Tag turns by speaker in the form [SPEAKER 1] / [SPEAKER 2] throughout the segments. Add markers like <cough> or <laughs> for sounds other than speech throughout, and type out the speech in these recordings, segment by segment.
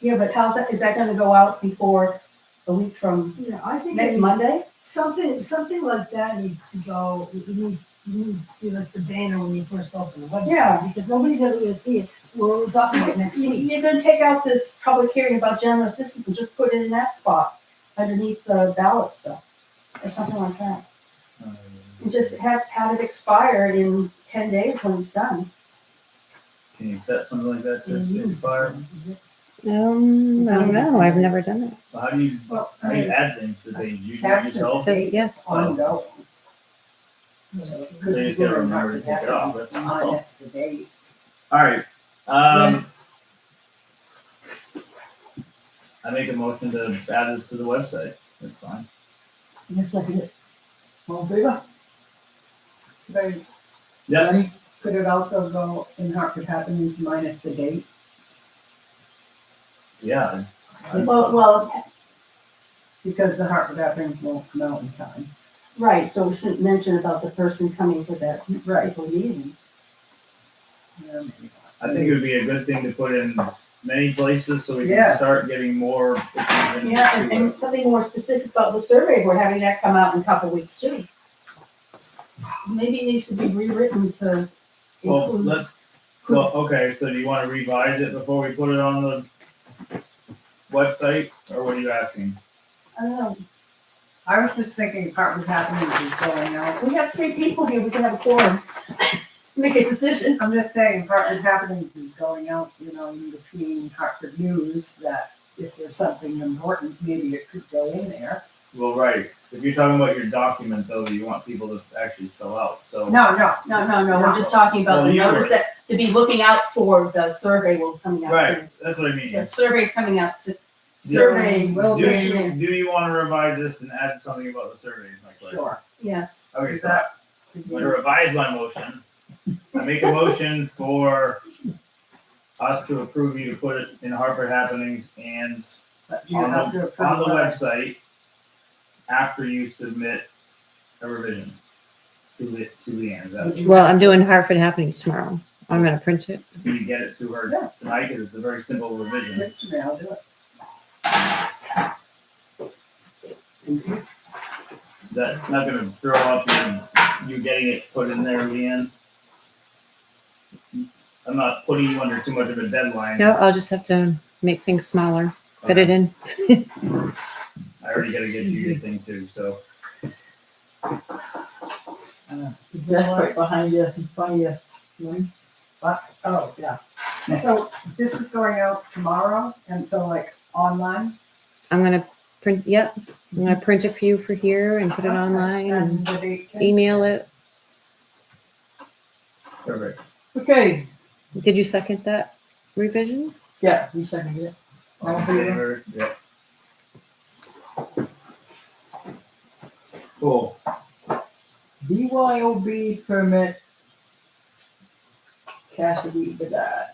[SPEAKER 1] Yeah, but how's that, is that gonna go out before a week from
[SPEAKER 2] Yeah, I think
[SPEAKER 1] next
[SPEAKER 2] it-
[SPEAKER 1] Monday?
[SPEAKER 2] something, something like that needs to go, you need, you need, you like the banner when you first open the website.
[SPEAKER 1] Yeah.
[SPEAKER 2] Because nobody's ever gonna see it, we're only talking about next
[SPEAKER 1] You-
[SPEAKER 2] week.
[SPEAKER 1] You're gonna take out this public hearing about general assistance and just put it in that spot underneath the ballot stuff or something like that.
[SPEAKER 3] Uh,
[SPEAKER 1] And just have, have it expire in ten days when it's done.
[SPEAKER 3] Can you set something like that to
[SPEAKER 1] Mm-hmm.
[SPEAKER 2] Mhm.
[SPEAKER 3] expire?
[SPEAKER 4] Um, I don't know. I've never done it.
[SPEAKER 3] Well, How do you,
[SPEAKER 1] Well,
[SPEAKER 3] how do you add things to things? You do it
[SPEAKER 1] Taxes.
[SPEAKER 3] yourself? Oh,
[SPEAKER 4] Just- yes.
[SPEAKER 1] ongoing.
[SPEAKER 3] They just gotta remember to take it off, that's all.
[SPEAKER 1] the date.
[SPEAKER 3] Alright, um. I make a motion to add this to the website, that's fine.
[SPEAKER 1] Yes, I did. Well, bigger.
[SPEAKER 5] But
[SPEAKER 3] Yeah,
[SPEAKER 5] could it also go in Hartford Happenings minus the date?
[SPEAKER 3] yeah.
[SPEAKER 1] Well, well,
[SPEAKER 5] Because the Hartford Happenings won't come out in time.
[SPEAKER 1] right, so we shouldn't mention about the person coming for that critical meeting.
[SPEAKER 5] Um,
[SPEAKER 3] I think it would be a good thing to put in many places so we can
[SPEAKER 5] Yes.
[SPEAKER 3] start getting more. pictures in
[SPEAKER 1] Yeah, and,
[SPEAKER 3] to it.
[SPEAKER 1] and something more specific about the survey, we're having that come out in a couple weeks too. Maybe it needs to be rewritten to
[SPEAKER 3] Well,
[SPEAKER 1] include,
[SPEAKER 3] let's, well, okay, so do you wanna revise it before we put it on the website, or what are you asking?
[SPEAKER 1] I don't know,
[SPEAKER 5] I was just thinking Hartford Happenings is going out.
[SPEAKER 1] we have three people here, we can have a forum. <laughs> Make a decision.
[SPEAKER 5] I'm just saying Hartford Happenings is going out, you know, in between Hartford News that if there's something important, maybe it could go in there.
[SPEAKER 3] Well, right, if you're talking about your document though, you want people to actually fill out, so.
[SPEAKER 5] No, no,
[SPEAKER 1] No, no, no, we're just talking about the
[SPEAKER 3] No, you were-
[SPEAKER 1] notice that, to be looking out for the survey will coming out
[SPEAKER 3] Right,
[SPEAKER 1] soon.
[SPEAKER 3] that's what I mean.
[SPEAKER 1] The survey's coming out soon.
[SPEAKER 3] Yeah.
[SPEAKER 1] Survey will be
[SPEAKER 3] Do you,
[SPEAKER 1] soon,
[SPEAKER 3] do you want to revise this and add something about the survey? is my question.
[SPEAKER 5] sure.
[SPEAKER 1] yes.
[SPEAKER 3] Okay,
[SPEAKER 5] Is
[SPEAKER 3] so
[SPEAKER 5] that-
[SPEAKER 3] I'm going to revise my motion. I make a motion for us to approve you to put it in Hartford Happenings and
[SPEAKER 5] But you
[SPEAKER 3] on
[SPEAKER 5] have to
[SPEAKER 3] the,
[SPEAKER 5] approve
[SPEAKER 3] on the
[SPEAKER 5] that.
[SPEAKER 3] website after you submit a revision to the, to Leanne. That's,
[SPEAKER 4] Well, I'm doing Hartford Happenings tomorrow. I'm gonna print it.
[SPEAKER 3] can you get it to her
[SPEAKER 5] Mm-hmm. Yeah.
[SPEAKER 3] tonight? Because it's a very simple revision.
[SPEAKER 5] Rich, may I do it?
[SPEAKER 3] That, not going to throw up you, you getting it put in there, Leanne. I'm not putting you under too much of a deadline.
[SPEAKER 4] No, I'll just have to make things smaller, fit it in.
[SPEAKER 3] I already gotta get you your thing too, so.
[SPEAKER 6] That's right behind you, in front of you.
[SPEAKER 5] Oh, yeah. So this is going out tomorrow and so like online?
[SPEAKER 4] I'm gonna print, yep. I'm gonna print a few for here and put it online and
[SPEAKER 5] And the date can-
[SPEAKER 4] email it.
[SPEAKER 3] Perfect.
[SPEAKER 6] Okay,
[SPEAKER 4] Did you second that revision?
[SPEAKER 6] yeah, we seconded it.
[SPEAKER 3] All in favor? Yep. Cool.
[SPEAKER 6] BYOB permit. Cassidy Bedard.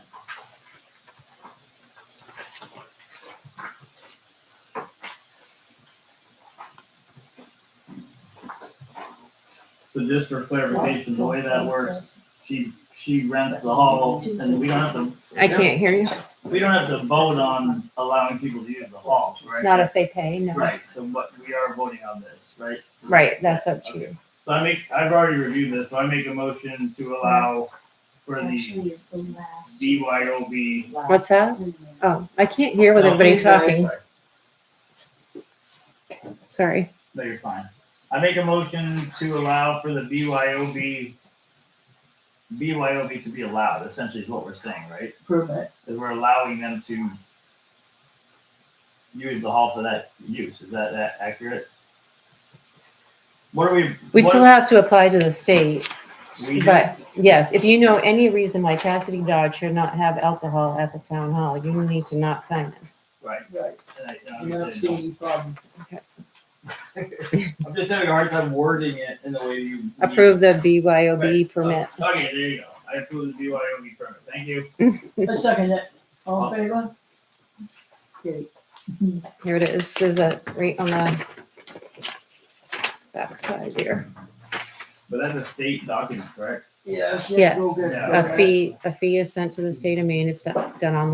[SPEAKER 3] So just for clarification, the way that works, she, she rents the hall and we don't have to.
[SPEAKER 4] I can't hear you.
[SPEAKER 3] We don't have to vote on allowing people to use the hall, right?
[SPEAKER 4] Not if they pay, no.
[SPEAKER 3] Right, so what, we are voting on this, right?
[SPEAKER 4] Right, that's up to you.
[SPEAKER 3] So I make, I've already reviewed this, so I make a motion to allow for the
[SPEAKER 1] Actually, it's the last.
[SPEAKER 3] BYOB.
[SPEAKER 4] What's that? Oh, I can't hear with
[SPEAKER 3] No,
[SPEAKER 4] everybody
[SPEAKER 3] please, guys.
[SPEAKER 4] talking. Sorry.
[SPEAKER 3] No, you're fine. I make a motion to allow for the BYOB, BYOB to be allowed, essentially is what we're saying, right?
[SPEAKER 6] Permit.
[SPEAKER 3] That we're allowing them to use the hall for that use. Is that, that accurate? What are we?
[SPEAKER 4] We
[SPEAKER 3] what-
[SPEAKER 4] still have to apply to the state,
[SPEAKER 3] we do-
[SPEAKER 4] but yes, if you know any reason why Cassidy Dodge should not have alcohol at the town hall, you need to not sign this.
[SPEAKER 3] Right.
[SPEAKER 6] Right,
[SPEAKER 3] and I- and
[SPEAKER 6] we
[SPEAKER 3] I'm
[SPEAKER 6] don't
[SPEAKER 3] just
[SPEAKER 6] see
[SPEAKER 3] saying-
[SPEAKER 6] any problem.
[SPEAKER 3] I'm just having a hard time wording it in the way you.
[SPEAKER 4] Approve the BYOB
[SPEAKER 3] Right.
[SPEAKER 4] permit.
[SPEAKER 3] Okay, there you go. I approve the BYOB permit. Thank you.
[SPEAKER 6] I second it. All in favor? Okay,
[SPEAKER 4] Here it is. There's a right on the backside here.
[SPEAKER 3] But that's a state document, correct?
[SPEAKER 5] Yeah.
[SPEAKER 4] Yes,
[SPEAKER 3] Yeah.
[SPEAKER 4] a fee, a fee is sent to the state of Maine. It's done done online.